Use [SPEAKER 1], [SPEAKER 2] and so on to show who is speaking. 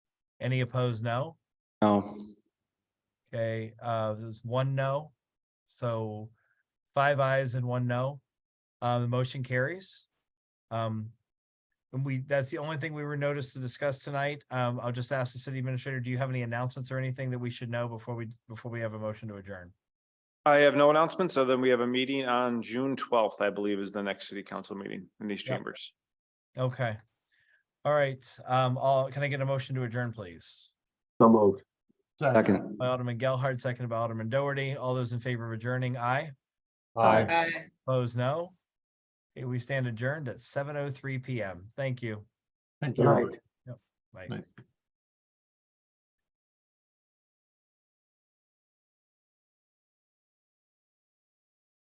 [SPEAKER 1] Any opposed, no?
[SPEAKER 2] No,
[SPEAKER 1] Okay, uh, there's one no. So five ayes and one no. Uh, the motion carries. Um, and we, that's the only thing we were noticed to discuss tonight. Um, I'll just ask the city administrator, do you have any announcements or anything that we should know before we, before we have a motion to adjourn?
[SPEAKER 3] I have no announcements, other than we have a meeting on June twelfth, I believe, is the next city council meeting in these
[SPEAKER 1] Yep.
[SPEAKER 3] chambers.
[SPEAKER 1] Okay. All right, um, all, can I get a motion to adjourn, please?
[SPEAKER 4] So moved.
[SPEAKER 2] second,
[SPEAKER 1] By Alderman Gelhardt, seconded by Alderman Doherty. All those in favor of adjourning, aye?
[SPEAKER 4] Aye.
[SPEAKER 1] Opposed, no? Okay, We stand adjourned at seven oh three PM. Thank you.
[SPEAKER 4] Thank
[SPEAKER 2] Right.
[SPEAKER 4] you.
[SPEAKER 1] Bye.
[SPEAKER 4] Right.